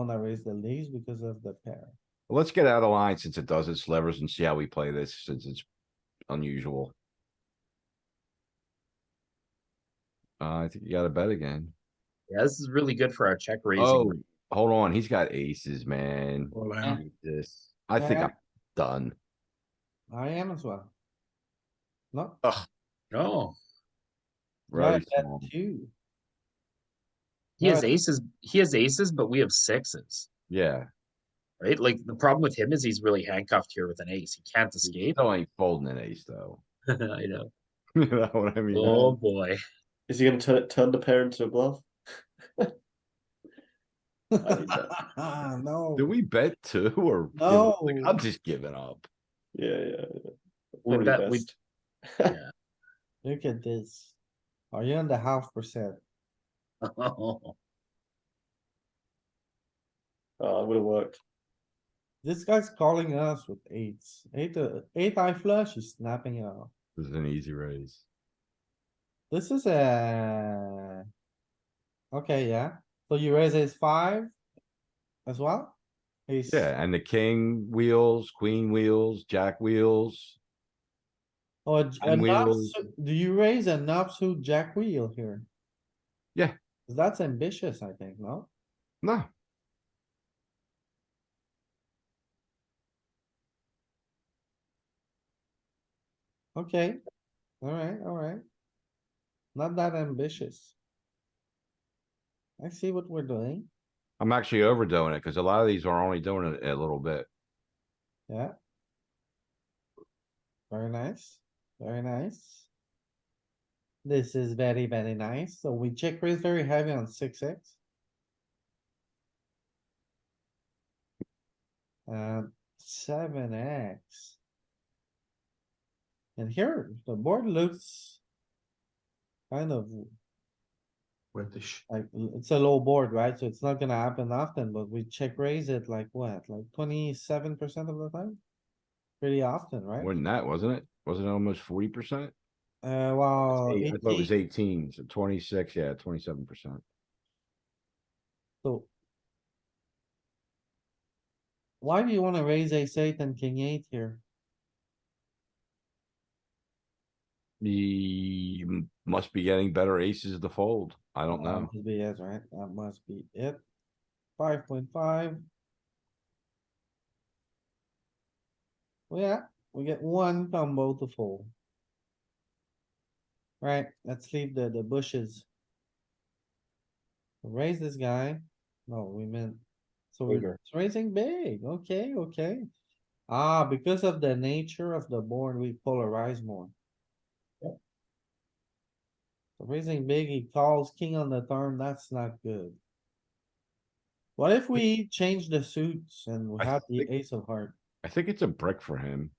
wanna raise the leaves because of the pair. Let's get out of line since it does its slivers and see how we play this since it's unusual. Uh, I think you gotta bet again. Yeah, this is really good for our check Oh, raising. hold on, he's got aces, man. All in. Jesus. I think Yeah. I'm done. I am as well. No, No, no, Very that small. too. He has Right. aces, he has aces, but we have sixes, Yeah, right? Like, the problem with him is he's really handcuffed here with an ace. He can't he escape. still ain't folding an ace though. I know. You know what I mean? Oh, boy. Is he going to turn turn the pair into a bluff? I need that. No, Do we bet two or? give No. up? Like, I'm just giving up. Yeah, yeah. yeah. Well, Probably that we- best. look at this. Are you on the half percent? Oh, it would have worked. This guy's calling us with eights. Eight, uh, eight eye flush, he's snapping it off. This is an easy raise. This is a. Okay, yeah, so you raise ace five as well? Ace- Yeah, and the king wheels, queen wheels, jack wheels. Or j- a And nuts- we'll- do you raise a nuts who jack wheel here? Yeah. 'Cause That's ambitious, I think, no? No, Okay, alright, alright. Not that ambitious. I see what we're doing, I'm actually overdoing it because a lot of these are only doing it a little bit. yeah. Very nice, very nice. This is very, very nice, so we check raise very heavy on six X. Um, seven X. And here, the board looks. Kind of British. Like, l- it's a low board, right? So it's not gonna happen often, but we check raise it like what, like twenty-seven percent of the time? Pretty often, right? Wasn't that, wasn't it? Wasn't it almost forty percent? Uh, I wow. thought it was 18. eighteen, so twenty-six, yeah, twenty-seven percent. So. Why do you wanna raise ace eight and king eight here? He m- must be getting better aces to fold. I don't That know. must Be it, right? That must be it. Five point five. Well, yeah, we get one combo to fold. Right, let's leave the, the bushes. Raise this guy. No, we meant, so we're Bigger. it's raising big. Okay, okay. Ah, because of the nature of the board, we polarize more. So Raising big, he calls king on the turn, that's not good. What if we change the suits and we I have the think- ace of heart? I think it's a brick for him.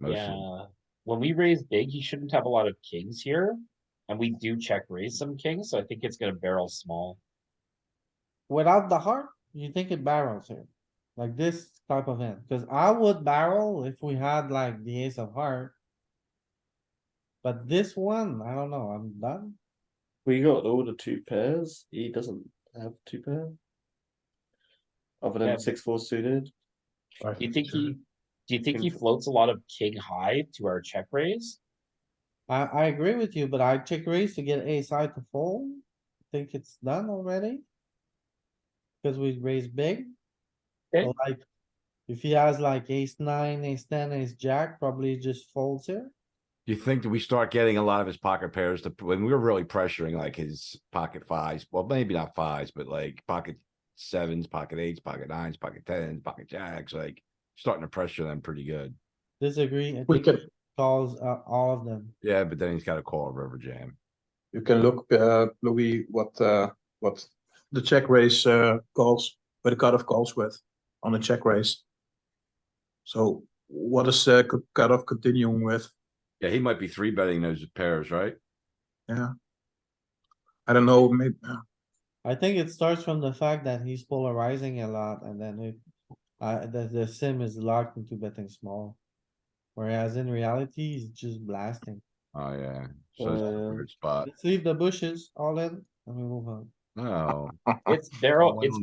Mostly. Yeah, when we raise big, he shouldn't have a lot of kings here, and we do check raise some kings, so I think it's gonna barrel small. Without the heart, you think it barrels here, like this type of hand, cuz I would barrel if we had like the ace of heart. But this one, I don't know, I'm done. We got all the two pairs. He doesn't have two pair. Other than Yeah. six four suited. Do you think he, do you think he Info- floats a lot of king high to our check raise? I, I agree with you, but I check raise to get ace high to fold. Think it's done already? Cause we raised big. Okay. So, Like, if he has like ace nine, ace ten, ace jack, probably just folds here. Do you think that we start getting a lot of his pocket pairs to, when we were really pressuring like his pocket fives, well, maybe not fives, but like pocket sevens, pocket eights, pocket nines, pocket tens, pocket jacks, like starting to pressure them pretty good. Disagree, I We think can, calls uh, all of them. Yeah, but then he's got a call a river jam. you can look, uh, Louis, what, uh, what the check raise, uh, calls, where the cutoff calls with on the check raise. So what is, uh, co- cutoff continuing with? Yeah, he might be three betting those pairs, right? I don't know, uh, maybe, I think it starts from the fact that he's polarizing a lot and then it, uh, the, the sim is locked into betting small. Whereas in reality, he's just blasting. Oh, yeah. So it's a Uh, weird spot. Let's leave the bushes all in and we move on. No. It's, they're all, One it's